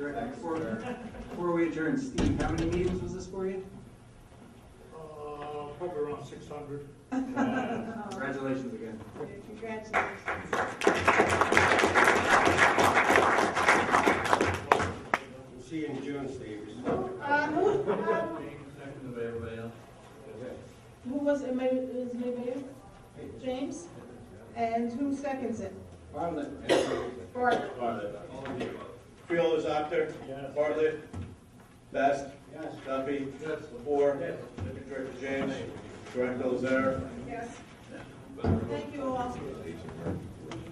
right back. Before, before we adjourn, Steve, how many meetings was this for you? Uh, probably around six hundred. Congratulations again. Congratulations. We'll see you in June, Steve. Uh, who, um, Second of everybody else. who was, it? Ma- is it Mayor? James? And who seconds it? Bartlett. Bart? Bartlett. Creel is actor. Bartlett. Best. Yes. Duffy. Moore. Director James. Director Lazare. Yes. Thank you all.